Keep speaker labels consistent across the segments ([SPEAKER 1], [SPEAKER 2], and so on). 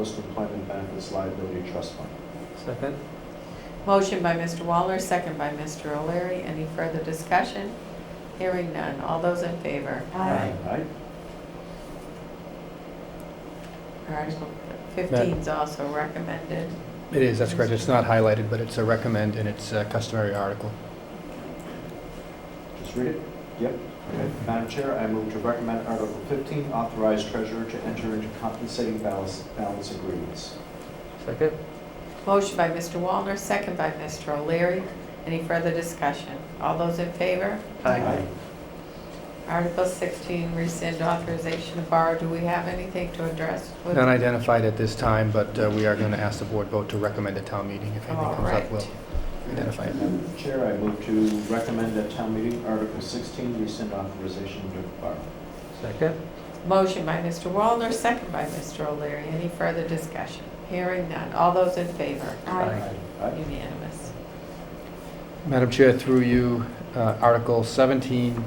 [SPEAKER 1] Post-Employment Benefits Liability Trust Fund.
[SPEAKER 2] Second?
[SPEAKER 3] Motion by Mr. Waller, second by Mr. O'Leary. Any further discussion? Hearing none. All those in favor?
[SPEAKER 2] Aye.
[SPEAKER 1] Aye.
[SPEAKER 3] Article 15 is also recommended.
[SPEAKER 4] It is, that's correct. It's not highlighted, but it's a recommend and it's a customary article.
[SPEAKER 1] Just read it? Yep. Okay. Madam Chair, I move to recommend Article 15, authorize treasurer to enter into compensating balance balance agreements.
[SPEAKER 2] Second?
[SPEAKER 3] Motion by Mr. Wallner, second by Mr. O'Leary. Any further discussion? All those in favor? Article 16, rescind authorization to borrow. Do we have anything to address? with-
[SPEAKER 4] Not identified at this time, but uh, we are going to ask the board vote to recommend a town meeting. If anything comes up, we'll
[SPEAKER 3] Alright.
[SPEAKER 4] identify it.
[SPEAKER 1] Madam Chair, I move to recommend at town meeting Article 16, rescind authorization to borrow.
[SPEAKER 2] Second?
[SPEAKER 3] Motion by Mr. Wallner, second by Mr. O'Leary. Any further discussion? Hearing none. All those in favor?
[SPEAKER 2] Aye.
[SPEAKER 1] Aye.
[SPEAKER 3] Unanimous.
[SPEAKER 4] Madam Chair, through you, uh, Article 17,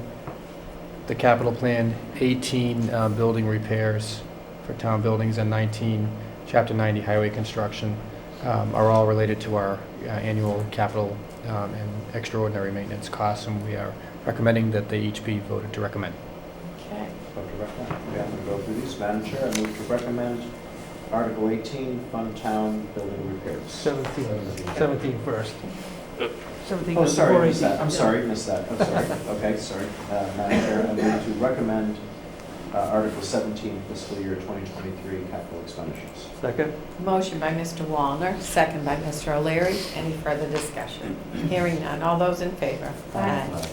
[SPEAKER 4] the capital plan, 18, uh, building repairs for town buildings, and 19, Chapter 90, highway construction, um, are all related to our uh, annual capital um, and extraordinary maintenance costs, and we are recommending that they each be voted to recommend.
[SPEAKER 3] Okay.
[SPEAKER 1] Vote to recommend. Okay, I'm going to go through these. Madam Chair, I move to recommend Article 18, fund town building repairs.
[SPEAKER 2] Seventeen. Seventeen first. Seventeen.
[SPEAKER 1] Oh, sorry, I missed that, I'm sorry, I missed that, I'm sorry, okay, sorry. Uh, Madam Chair, I move to recommend uh, Article 17, fiscal year 2023 capital expenditures.
[SPEAKER 2] Second?
[SPEAKER 3] Motion by Mr. Wallner, second by Mr. O'Leary. Any further discussion? Hearing none. All those in favor?
[SPEAKER 1] Uh,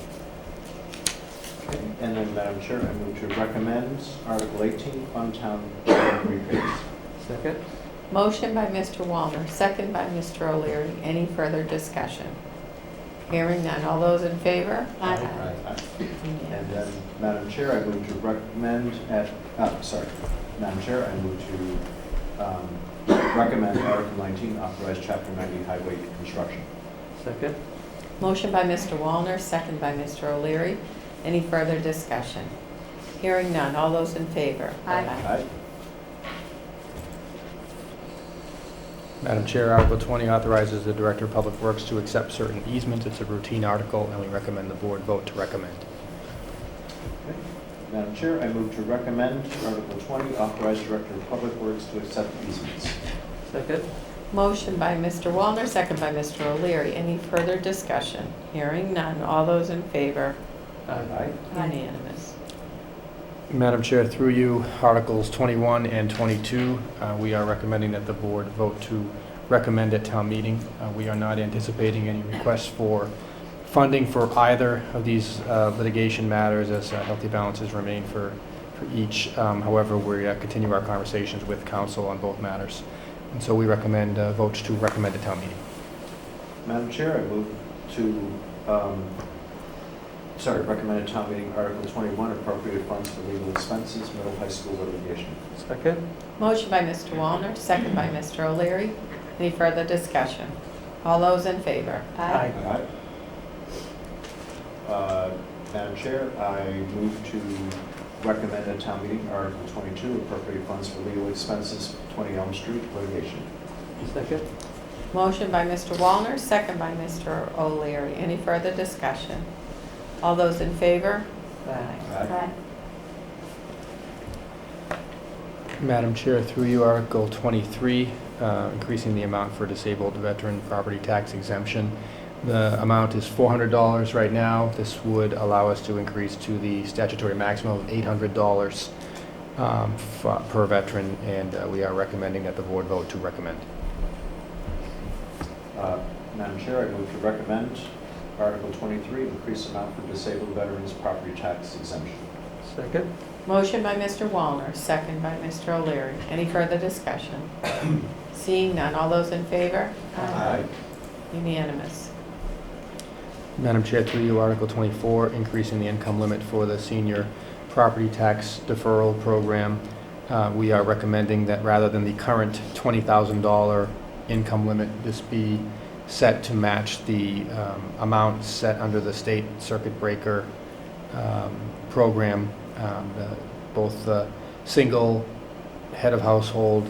[SPEAKER 1] Okay, And then, Madam Chair, I move to recommend Article 18, fund town building repairs.
[SPEAKER 2] Second?
[SPEAKER 3] Motion by Mr. Wallner, second by Mr. O'Leary. Any further discussion? Hearing none. All those in favor?
[SPEAKER 1] Aye. And then,
[SPEAKER 3] Unanimous.
[SPEAKER 1] Madam Chair, I move to recommend at, uh, sorry, Madam Chair, I move to um, recommend Article 19, authorize Chapter 90 highway construction.
[SPEAKER 2] Second?
[SPEAKER 3] Motion by Mr. Wallner, second by Mr. O'Leary. Any further discussion? Hearing none. All those in favor?
[SPEAKER 1] Aye.
[SPEAKER 4] Madam Chair, Article 20 authorizes the Director of Public Works to accept certain easements. It's a routine article, and we recommend the board vote to recommend.
[SPEAKER 1] Madam Chair, I move to recommend Article 20, authorize Director of Public Works to accept easements.
[SPEAKER 2] Second?
[SPEAKER 3] Motion by Mr. Wallner, second by Mr. O'Leary. Any further discussion? Hearing none. All those in favor?
[SPEAKER 1] Aye.
[SPEAKER 3] Unanimous.
[SPEAKER 4] Madam Chair, through you, Articles 21 and 22, uh, we are recommending that the board vote to recommend at town meeting. Uh, We are not anticipating any requests for funding for either of these uh, litigation matters, as uh, healthy balances remain for for each. Um, However, we uh, continue our conversations with council on both matters. And so we recommend uh, votes to recommend at town meeting.
[SPEAKER 1] Madam Chair, I move to, um, sorry, recommend at town meeting Article 21, appropriate funds for legal expenses, middle high school litigation.
[SPEAKER 2] Second?
[SPEAKER 3] Motion by Mr. Wallner, second by Mr. O'Leary. Any further discussion? All those in favor?
[SPEAKER 2] Aye.
[SPEAKER 1] Uh, Madam Chair, I move to recommend at town meeting Article 22, appropriate funds for legal expenses, 20 Elm Street litigation.
[SPEAKER 2] Second?
[SPEAKER 3] Motion by Mr. Wallner, second by Mr. O'Leary. Any further discussion? All those in favor?
[SPEAKER 1] Aye.
[SPEAKER 4] Madam Chair, through you, Article 23, uh, increasing the amount for disabled veteran property tax exemption. The amount is $400 right now. This would allow us to increase to the statutory maximum of $800 um, f- per veteran, and uh, we are recommending that the board vote to recommend.
[SPEAKER 1] Uh, Madam Chair, I move to recommend Article 23, increase amount for disabled veterans property tax exemption.
[SPEAKER 2] Second?
[SPEAKER 3] Motion by Mr. Wallner, second by Mr. O'Leary. Any further discussion? Seeing none, all those in favor? Unanimous.
[SPEAKER 4] Madam Chair, through you, Article 24, increasing the income limit for the senior property tax deferral program. Uh, We are recommending that rather than the current $20,000 income limit, this be set to match the um, amount set under the state circuit breaker um, program. Um, the- Both the single head of household